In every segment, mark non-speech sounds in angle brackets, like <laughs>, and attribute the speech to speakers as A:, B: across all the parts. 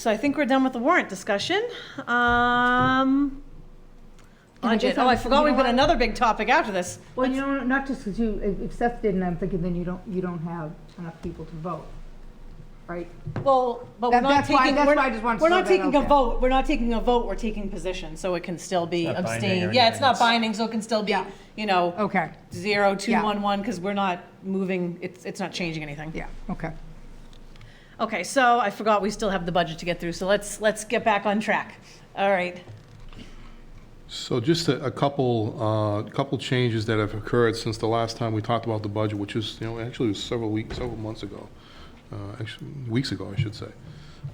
A: So I think we're done with the warrant discussion. Um,
B: Can I
A: budget.
B: just
A: Oh, I
B: have-
A: forgot
B: you
A: we've
B: know
A: got
B: what?
A: another big topic after this.
B: Well, you know, not just because you, if- if Seth didn't, I'm thinking then you don't, you don't have enough people to vote, right?
A: Well, but we're
B: That-
A: not
B: that's why-
A: taking,
B: that's
A: we're
B: why I just wanted to
A: we're
B: throw
A: not
B: that
A: taking
B: out
A: a
B: there.
A: vote, we're not taking a vote, we're taking position, so it can still be
C: It's not binding
A: abstain.
C: or
A: Yeah, it's
C: anything,
A: not
C: it's-
A: binding, so it can still be,
B: Yeah.
A: you know,
B: Okay,
A: zero, two,
B: Yeah.
A: one, one, because we're not moving, it's, it's not changing anything.
B: yeah, okay.
A: Okay, so I forgot we still have the budget to get through, so let's, let's get back on track. All right.
D: So just a a couple, uh, couple changes that have occurred since the last time we talked about the budget, which is, you know, actually it was several weeks, several months ago, Uh, actually, weeks ago, I should say.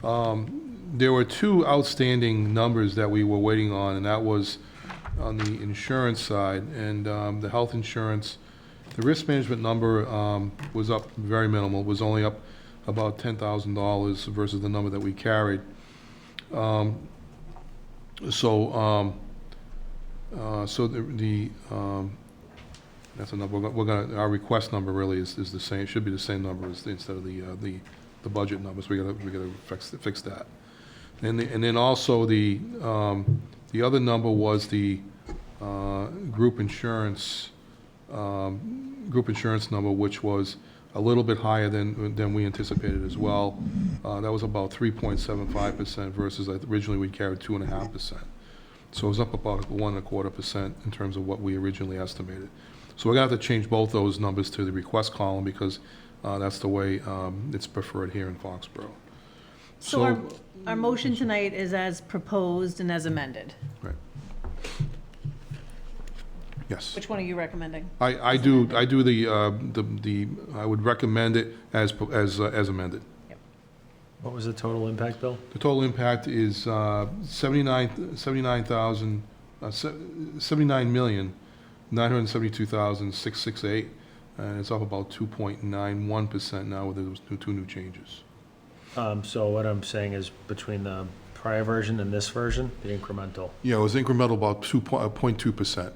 D: Um, There were two outstanding numbers that we were waiting on, and that was on the insurance side and um, the health insurance. The risk management number um, was up very minimal, was only up about $10,000 versus the number that we carried. Um, So, um, uh, So the- the, um, that's a number, we're go- we're gonna, our request number really is, is the same, should be the same number as, the- instead of the, uh, the, the budget numbers, we gotta, we gotta fix, fix that. And, the- and then also the, um, the other number was the uh, group insurance, um, group insurance number, which was a little bit higher than, than we anticipated as well. Uh, That was about 3.75% versus originally we carried 2.5%. So it was up about one and a quarter percent in terms of what we originally estimated. So we're gonna have to change both those numbers to the request column because uh, that's the way um, it's preferred here in Foxborough.
A: So our,
D: So-
A: our motion tonight is as proposed and as amended.
D: Right. Yes.
A: Which one are you recommending?
D: I, I do, I do the, uh, the, the I would recommend it as, pro- as, uh, as amended.
C: What was the total impact, Bill?
D: The total impact is uh, 79, 79,000, uh, se- 79,972,668, and it's up about 2.91% now with those new- two new changes.
C: Um, so what I'm saying is between the prior version and this version, the incremental.
D: Yeah, it was incremental about uh, 2.2%.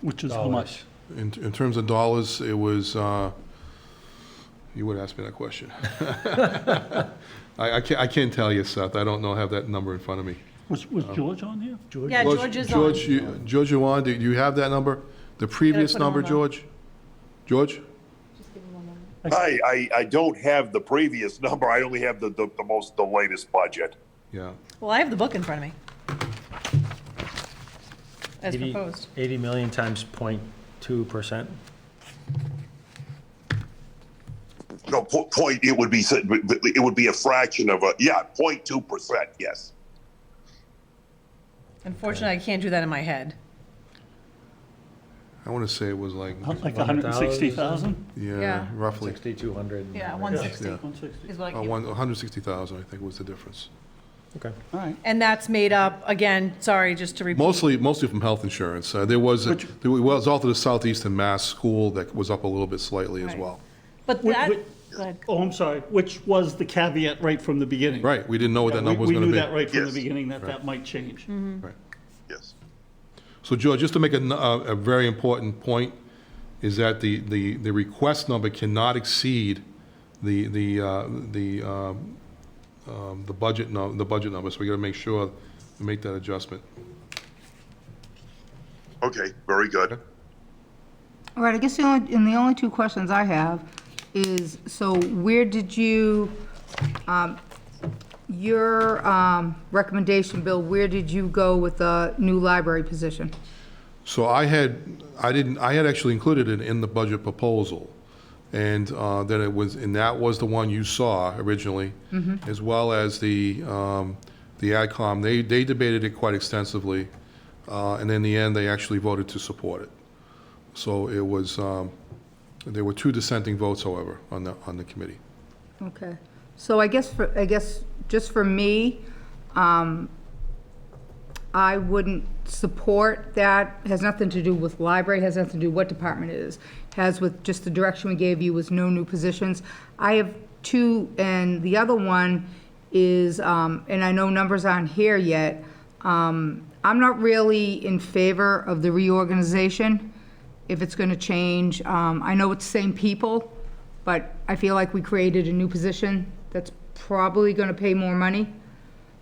E: Which is how
C: dollars.
E: much?
D: In, in terms of dollars, it was, uh, you would ask me that question. <laughs> I, I can't, I can't tell you, Seth, I don't know, have that number in front of me.
E: Was, was George on here? George?
A: Yeah, George is on.
D: George, you- George, you want, do you have that number? The previous
A: put it
D: number,
A: on the-
D: George? George?
F: I, I, I don't have the previous number. I only have the, the, the most, the latest budget.
D: Yeah.
A: Well, I have the book in front of me. As
C: 80
A: proposed.
C: 80 million times 0.2%.
F: No, po- point, it would be, s- it would be a fraction of a, yeah, 0.2%, yes.
A: Unfortunately, I can't do that in my head.
D: I want to say it was like,
E: Like a hundred and sixty thousand?
D: yeah,
A: Yeah.
D: roughly,
C: 6,200.
A: Yeah,
C: Okay.
A: 160
D: Yeah.
E: One sixty.
A: is what I
D: uh,
A: came-
D: one- 160,000, I think was the difference.
C: Okay.
E: All right.
A: And that's made up, again, sorry, just to repeat.
D: Mostly, mostly from health insurance. Uh, There was,
E: Which-
D: there was also the Southeastern Mass School that was up a little bit slightly as
A: Right.
D: well.
A: But
E: Wh-
A: that,
E: wh-
A: go ahead.
E: Oh, I'm sorry, which was the caveat right from the beginning.
D: Right, we didn't know what that
E: We
D: number was
E: we
D: going to be.
E: knew that right from the
F: Yes.
E: beginning, that that might change.
D: Right.
F: Yes.
D: So George, just to make a, n- uh, a- a very important point, is that the, the, the request number cannot exceed the, the, uh, the, um, um, the budget nu, the budget number, so we gotta make sure, we make that adjustment.
F: Okay, very good.
B: All right, I guess the only, and the only two questions I have is, so where did you, um, your um, recommendation, Bill, where did you go with the new library position?
D: So I had, I didn't, I had actually included it in the budget proposal. And uh, then it was, and that was the one you saw originally, as well as the, um, the AdCom. They, they debated it quite extensively, uh, and in the end, they actually voted to support it. So it was, um, there were two dissenting votes, however, on the, on the committee.
B: Okay, so I guess, for I guess, just for me, um, I wouldn't support that, has nothing to do with library, has nothing to do what department it is, has with just the direction we gave you was no new positions. I have two, and the other one is, um, and I know numbers aren't here yet, um, I'm not really in favor of the reorganization, if it's gonna change. Um, I know it's same people, but I feel like we created a new position that's probably gonna pay more money.